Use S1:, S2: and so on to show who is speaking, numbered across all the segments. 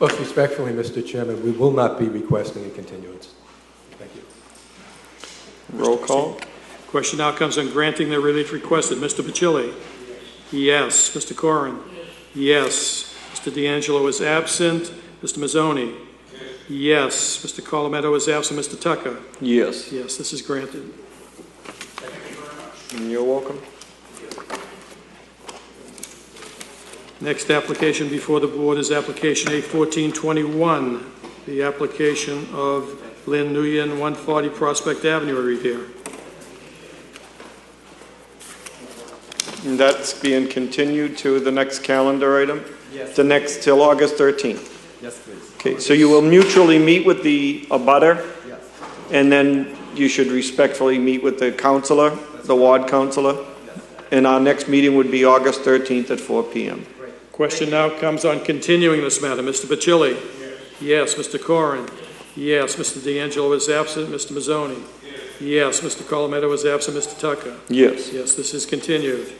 S1: Most respectfully, Mr. Chairman, we will not be requesting a continuance. Thank you.
S2: Roll call?
S3: Question now comes on granting the relief requested. Mr. Bacilli? Yes. Mr. Corrin? Yes. Mr. D'Angelo is absent. Mr. Mazzoni? Yes. Mr. Colometto is absent. Mr. Tucker?
S2: Yes.
S3: Yes, this is granted.
S2: You're welcome.
S3: Next application before the board is application A1421, the application of Lynn Nguyen, 140 Prospect Avenue, I read here.
S2: And that's being continued to the next calendar item? Yes. The next, till August 13th? Yes, please. Okay, so you will mutually meet with the abutter? Yes. And then you should respectfully meet with the counselor, the ward counselor? And our next meeting would be August 13th at 4 PM.
S3: Question now comes on continuing this matter. Mr. Bacilli? Yes. Mr. Corrin? Yes. Mr. D'Angelo is absent. Mr. Mazzoni? Yes. Mr. Colometto is absent. Mr. Tucker?
S2: Yes.
S3: Yes, this is continued.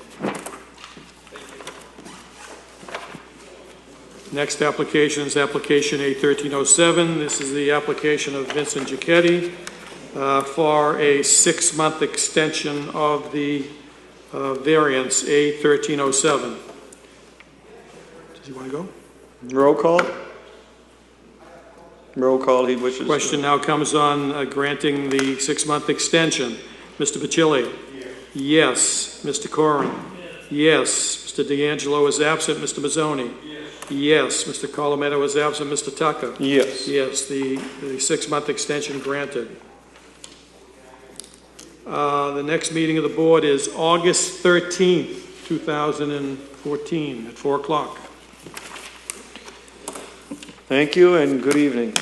S3: Next application is application A1307. This is the application of Vincent Giacchetti uh, for a six-month extension of the uh, variance A1307. Does he want to go?
S2: Roll call? Roll call, he wishes. to-
S3: Question now comes on uh, granting the six-month extension. Mr. Bacilli? Yes. Mr. Corrin? Yes. Mr. D'Angelo is absent. Mr. Mazzoni? Yes. Mr. Colometto is absent. Mr. Tucker?
S2: Yes.
S3: Yes, the, the six-month extension granted. Uh, The next meeting of the board is August 13th, 2014, at 4 o'clock.
S2: Thank you and good evening.